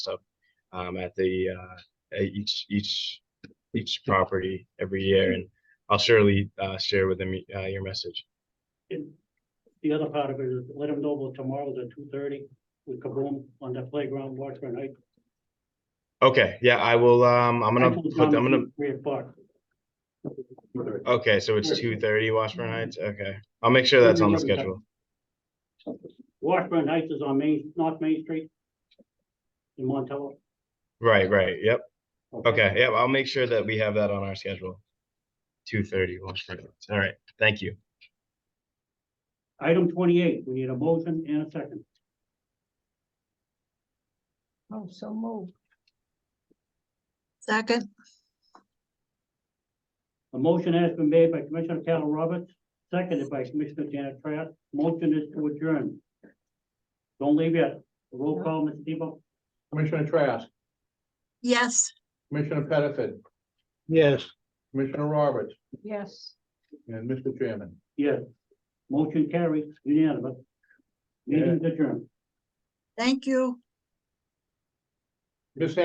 up um, at the uh, at each each each property every year, and I'll surely uh, share with them uh, your message. And the other part of it is let them know about tomorrow's at two thirty with Kaboom on the playground, Washburn Heights. Okay, yeah, I will. Um, I'm gonna Actually, put. I'm Tom, gonna. Three o'clock. Okay, so it's two thirty Washburn Heights. Okay, I'll make sure that's on the schedule. Washburn Heights is on Main, North Main Street. In Montello. Right, right. Yep. Okay. Yep. I'll make sure that we have that on our schedule. Two thirty Washburn. Heights. All right. Thank you. Item twenty-eight, we need a motion and a second. Oh, so moved. Second, A motion has been made by Commissioner Carol Roberts, seconded by Commissioner Janet Trask. Motion is to adjourn. Don't leave yet. Roll call, Mr. Debo. Commissioner Trask, yes. Commissioner Pettiford, Yes. Commissioner Roberts, Yes. and Mr. Chairman. Yes. Motion carries unanimous. Meeting adjourned. Thank you. Miss